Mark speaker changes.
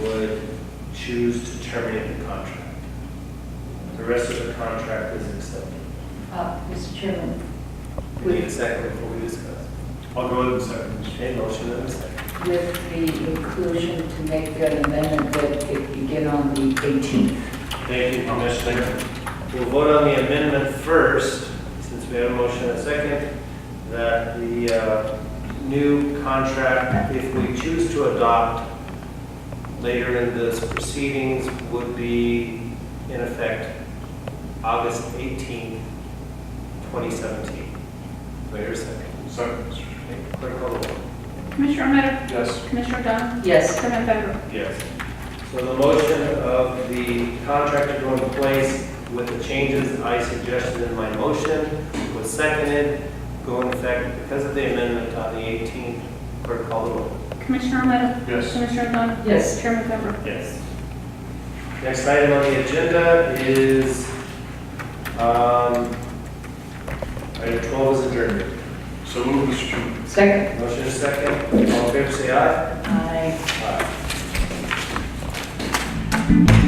Speaker 1: would choose to terminate the contract. The rest of the contract is accepted.
Speaker 2: Uh, Mr. Chairman,
Speaker 1: We need a second before we discuss.
Speaker 3: I'll go ahead and second.
Speaker 1: Okay, motion and a second.
Speaker 2: with the inclusion to make that amendment that it begin on the 18th.
Speaker 1: Thank you, Commissioner. We'll vote on the amendment first, since we have a motion and a second, that the uh, new contract, if we choose to adopt later in this proceedings, would be in effect August 18, 2017. Do I hear a second?
Speaker 3: Second.
Speaker 1: Okay, Clerk call the roll.
Speaker 4: Commissioner Romero,
Speaker 3: Yes.
Speaker 4: Commissioner O'Donnell,
Speaker 2: Yes,
Speaker 4: Chairman Farrow.
Speaker 1: Yes. So the motion of the contract to go into place with the changes I suggested in my motion was seconded, go in effect because of the amendment on the 18th, clerk call the roll.
Speaker 4: Commissioner Romero,
Speaker 3: Yes.
Speaker 4: Commissioner O'Donnell,
Speaker 2: yes.
Speaker 4: Chairman Farrow.
Speaker 1: Yes. Next item on the agenda is, um, item 12 is adjourned.
Speaker 3: So move, Mr. Chairman.
Speaker 2: Second?
Speaker 1: Motion is second, all in favor, say aye.
Speaker 2: Aye.
Speaker 1: Aye.